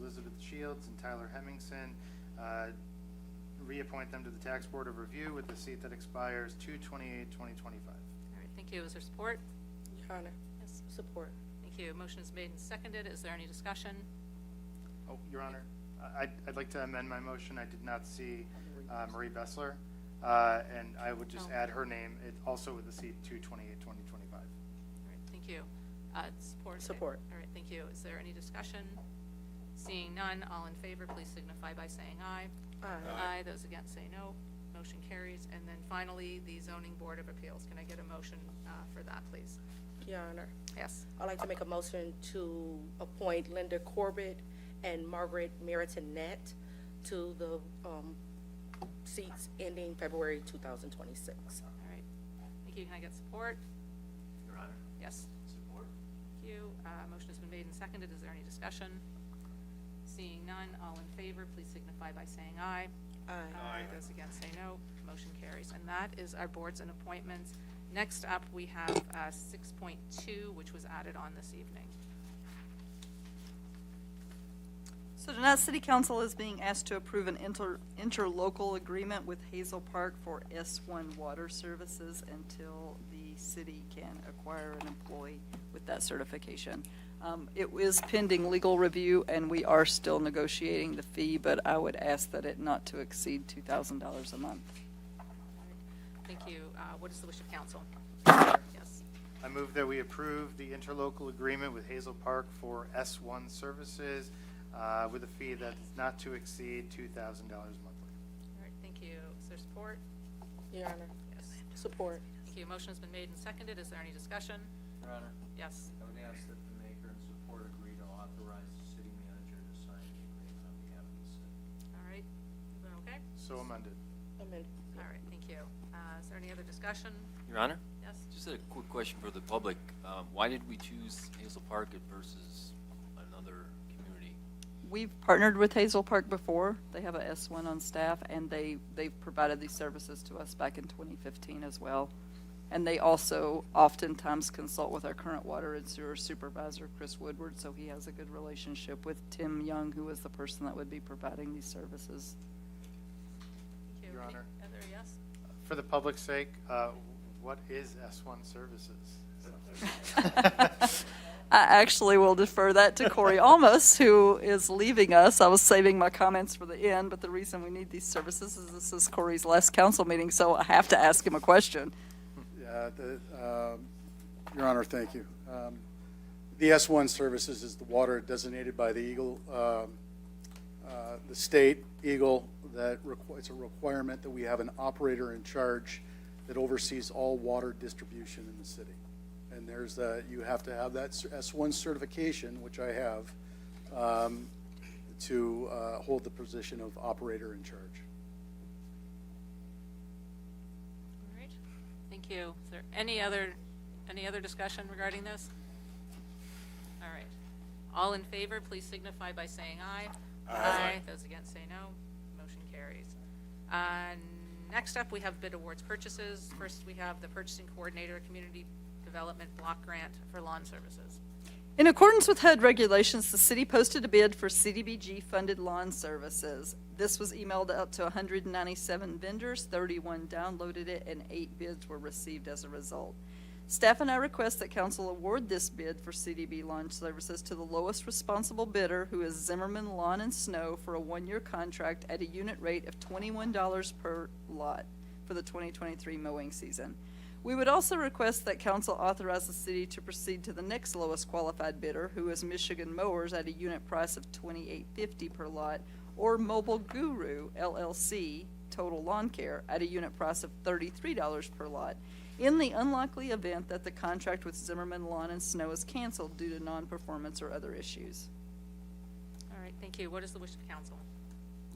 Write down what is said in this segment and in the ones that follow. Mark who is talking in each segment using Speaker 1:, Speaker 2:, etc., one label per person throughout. Speaker 1: Elizabeth Shields and Tyler Hemmingson, uh, reappoint them to the Tax Board of Review with a seat that expires 2/28/2025.
Speaker 2: All right, thank you. Is there support?
Speaker 3: Your Honor,
Speaker 2: Yes.
Speaker 3: support.
Speaker 2: Thank you. Motion is made and seconded. Is there any discussion?
Speaker 1: Oh, Your Honor, I- I'd, I'd like to amend my motion. I did not see uh, Marie Bessler, uh, and I would just
Speaker 2: Oh.
Speaker 1: add her name, it also with the seat 2/28/2025.
Speaker 2: All right, thank you. Uh, Support? right?
Speaker 3: Support.
Speaker 2: All right, thank you. Is there any discussion? Seeing none, all in favor, please signify by saying aye. Aye. Those against say no. Motion carries. And then finally, the Zoning Board of Appeals. Can I get a motion uh, for that, please?
Speaker 3: Your Honor,
Speaker 2: Yes.
Speaker 3: I'd like to make a motion to appoint Linda Corbett and Margaret Meritinette to the um, seats ending February 2026.
Speaker 2: All right. Thank you. Can I get support?
Speaker 4: Your Honor,
Speaker 2: Yes.
Speaker 4: support.
Speaker 2: Thank you. Uh, Motion has been made and seconded. Is there any discussion? Seeing none, all in favor, please signify by saying aye.
Speaker 4: Aye.
Speaker 2: Those against say no. Motion carries. And that is our boards and appointments. Next up, we have uh, 6.2, which was added on this evening.
Speaker 5: So tonight, City Council is being asked to approve an inter, interlocal agreement with Hazel Park for S1 water services until the city can acquire an employee with that certification. Um, It is pending legal review, and we are still negotiating the fee, but I would ask that it not to exceed $2,000 a month.
Speaker 2: Thank you. Uh, What is the wish of council? Yes.
Speaker 1: I move that we approve the interlocal agreement with Hazel Park for S1 services uh, with a fee that is not to exceed $2,000 monthly.
Speaker 2: All right, thank you. Is there support?
Speaker 3: Your Honor, support.
Speaker 2: Thank you. Motion has been made and seconded. Is there any discussion?
Speaker 4: Your Honor,
Speaker 2: Yes.
Speaker 4: I would ask that the maker and support agree to authorize the city manager to sign the agreement on behalf of the city.
Speaker 2: All right. Everyone okay?
Speaker 1: So amended.
Speaker 3: Amend-
Speaker 2: All right, thank you. Uh, Is there any other discussion?
Speaker 6: Your Honor,
Speaker 2: Yes?
Speaker 6: just a quick question for the public. Um, Why did we choose Hazel Park versus another community?
Speaker 5: We've partnered with Hazel Park before. They have a S1 on staff, and they, they've provided these services to us back in 2015 as well. And they also oftentimes consult with our current water and sewer supervisor, Chris Woodward, so he has a good relationship with Tim Young, who is the person that would be providing these services.
Speaker 2: Thank you.
Speaker 1: Your
Speaker 2: Any
Speaker 1: Honor.
Speaker 2: Other yes?
Speaker 1: For the public's sake, uh, what is S1 services?
Speaker 5: I actually will defer that to Corey Almus, who is leaving us. I was saving my comments for the end, but the reason we need these services is this is Corey's last council meeting, so I have to ask him a question.
Speaker 7: Yeah, the, um, Your Honor, thank you. Um, The S1 services is the water designated by the Eagle, um, uh, the state Eagle, that requ- it's a requirement that we have an operator in charge that oversees all water distribution in the city. And there's that, you have to have that cer- S1 certification, which I have, um, to uh, hold the position of operator in charge.
Speaker 2: All right, thank you. Is there any other, any other discussion regarding this? All right. All in favor, please signify by saying aye. Aye. Those against say no. Motion carries. Uh, Next up, we have bid awards purchases. First, we have the purchasing coordinator, community development block grant for lawn services.
Speaker 5: In accordance with HUD regulations, the city posted a bid for CDBG-funded lawn services. This was emailed out to 197 vendors, 31 downloaded it, and eight bids were received as a result. Staff and I request that council award this bid for CDB lawn services to the lowest responsible bidder, who is Zimmerman Lawn and Snow, for a one-year contract at a unit rate of $21 per lot for the 2023 mowing season. We would also request that council authorize the city to proceed to the next lowest qualified bidder, who is Michigan Mowers at a unit price of twenty-eight fifty per lot, or Mobile Guru LLC Total Lawn Care at a unit price of thirty-three dollars per lot, in the unlikely event that the contract with Zimmerman Lawn and Snow is canceled due to non-performance or other issues.
Speaker 2: All right, thank you. What is the wish of council?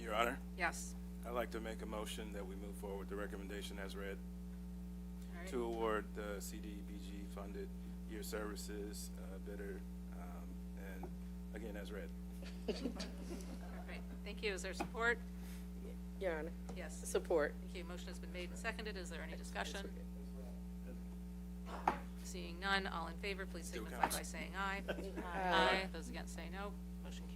Speaker 8: Your Honor,
Speaker 2: Yes.
Speaker 8: I'd like to make a motion that we move forward with the recommendation as read
Speaker 2: All right.
Speaker 8: to award the CDBG-funded year services uh, bidder, um, and again, as read.
Speaker 2: All right, Thank you. Is there support?
Speaker 3: Your Honor,
Speaker 2: Yes.
Speaker 3: support.
Speaker 2: Thank you. Motion has been made and seconded. Is there any discussion? Seeing none, all in favor, please signify by
Speaker 8: counts.
Speaker 2: saying aye.
Speaker 3: Aye.
Speaker 2: Those against say no.